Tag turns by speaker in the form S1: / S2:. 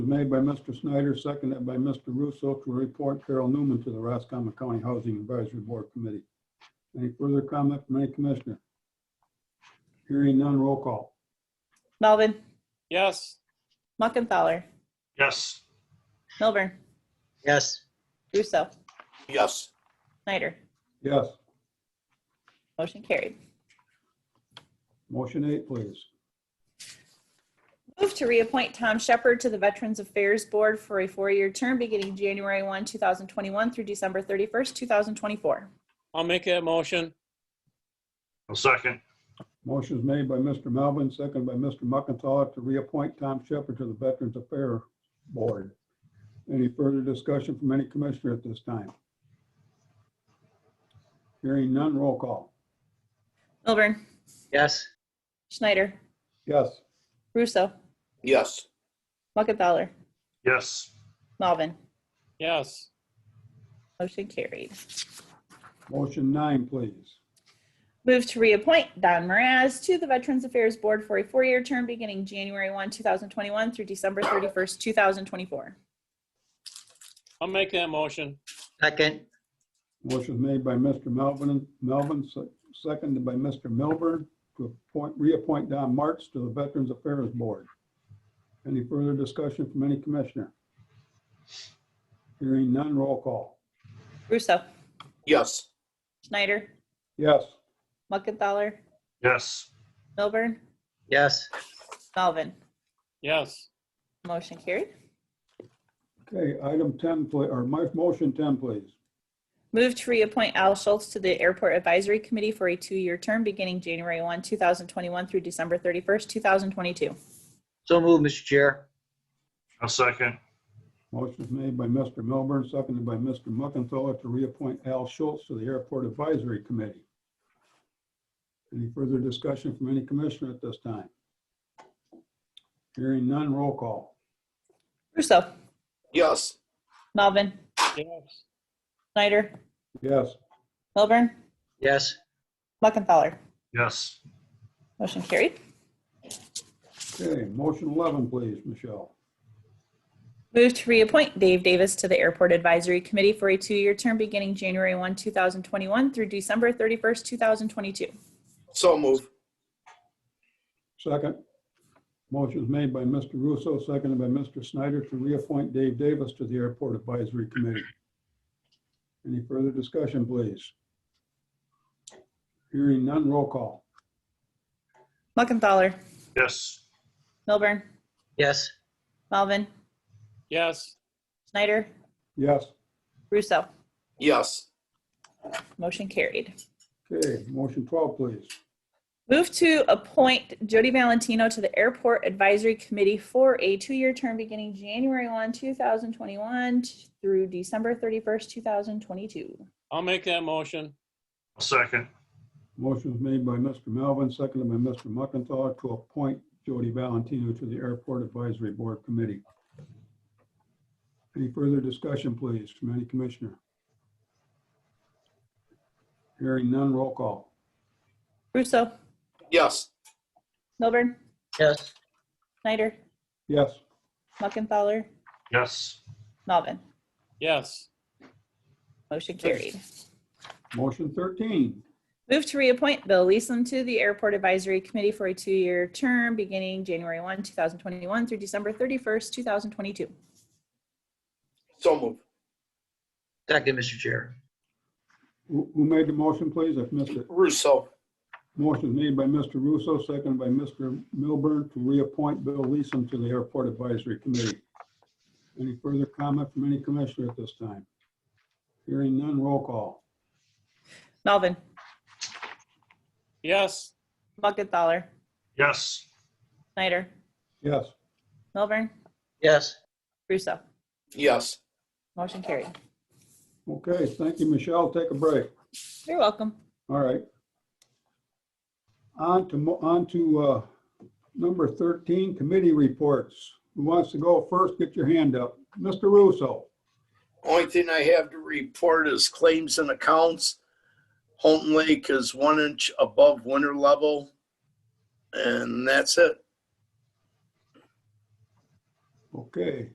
S1: was made by Mr. Snyder, seconded by Mr. Russo to report Carol Newman to the Roscommon County Housing Advisory Board Committee. Any further comment from any commissioner? Hearing none, roll call.
S2: Melvin,
S3: Yes.
S2: Muckenthaler,
S4: Yes.
S2: Milburn,
S5: yes,
S2: Russo,
S3: Yes.
S2: Snyder.
S1: Yes,
S2: Motion carried.
S1: motion eight, please.
S2: Move to reappoint Tom Shepard to the Veterans Affairs Board for a four-year term beginning January 1, 2021 through December 31st, 2024.
S3: I'll make that motion.
S4: I'll second.
S1: Motion is made by Mr. Melvin, seconded by Mr. McIntosh to reappoint Tom Shepard to the Veterans Affairs Board. Any further discussion from any commissioner at this time? Hearing none, roll call.
S2: Milburn,
S5: yes,
S2: Schneider,
S1: Yes.
S2: Russo,
S3: Yes.
S2: Muckenthaler,
S4: Yes.
S2: Melvin.
S3: Yes.
S2: Motion carried.
S1: Motion nine, please.
S2: Move to reappoint Don Moraz to the Veterans Affairs Board for a four-year term beginning January 1, 2021 through December 31st, 2024.
S3: I'll make that motion.
S5: second,
S1: Motion is made by Mr. Melvin, Melvin, se- seconded by Mr. Milburn to appoint, reappoint Don Marks to the Veterans Affairs Board. Any further discussion from any commissioner? Hearing none, roll call.
S2: Russo,
S3: Yes.
S2: Schneider,
S1: Yes,
S2: Muckenthaler,
S4: Yes.
S2: Milburn,
S5: yes,
S2: Melvin.
S3: Yes.
S2: Motion carried.
S1: okay, item 10, pla- or my motion 10, please.
S2: Move to reappoint Al Schultz to the Airport Advisory Committee for a two-year term beginning January 1, 2021 through December 31st, 2022.
S5: so move, Mr. Chair,
S4: I'll second.
S1: Motion is made by Mr. Milburn, seconded by Mr. Muckenthaler to reappoint Al Schultz to the Airport Advisory Committee. Any further discussion from any commissioner at this time? Hearing none, roll call.
S2: Russo,
S3: Yes.
S2: Melvin,
S3: Yes.
S2: Snyder,
S1: Yes,
S2: Milburn,
S5: yes,
S2: Muckenthaler.
S4: Yes.
S2: Motion carried.
S1: okay, motion 11, please, Michelle.
S2: Move to reappoint Dave Davis to the Airport Advisory Committee for a two-year term beginning January 1, 2021 through December 31st, 2022.
S3: So move.
S1: Second. Motion is made by Mr. Russo, seconded by Mr. Snyder to reappoint Dave Davis to the Airport Advisory Committee. Any further discussion, please? Hearing none, roll call.
S2: Muckenthaler,
S4: Yes.
S2: Milburn,
S5: yes,
S2: Melvin,
S3: Yes.
S2: Snyder,
S1: Yes,
S2: Russo.
S3: Yes.
S2: Motion carried.
S1: okay, motion 12, please.
S2: Move to appoint Jody Valentino to the Airport Advisory Committee for a two-year term beginning January 1, 2021 through December 31st, 2022.
S3: I'll make that motion.
S4: I'll second.
S1: Motion was made by Mr. Melvin, seconded by Mr. McIntosh to appoint Jody Valentino to the Airport Advisory Board Committee. Any further discussion, please, from any commissioner? Hearing none, roll call.
S2: Russo,
S3: Yes.
S2: Milburn,
S5: yes,
S2: Snyder,
S1: Yes,
S2: Muckenthaler,
S4: Yes.
S2: Melvin.
S3: Yes.
S2: Motion carried.
S1: motion 13,
S2: Move to reappoint Bill Leeson to the Airport Advisory Committee for a two-year term beginning January 1, 2021 through December 31st, 2022.
S3: So move.
S5: second, Mr. Chair,
S1: who who made the motion, please? I've missed it.
S3: Russo.
S1: Motion made by Mr. Russo, seconded by Mr. Milburn to reappoint Bill Leeson to the Airport Advisory Committee. Any further comment from any commissioner at this time? Hearing none, roll call.
S2: Melvin,
S3: Yes.
S2: Muckenthaler,
S4: Yes.
S2: Snyder,
S1: Yes,
S2: Milburn,
S5: yes,
S2: Russo.
S3: Yes.
S2: Motion carried.
S1: okay, thank you, Michelle, take a break.
S2: You're welcome.
S1: All right. On to, mo- on to uh, number 13, committee reports. Who wants to go first? Get your hand up. Mr. Russo.
S6: Only thing I have to report is claims and accounts. Houghton Lake is one inch above winter level. And that's it.
S1: Okay,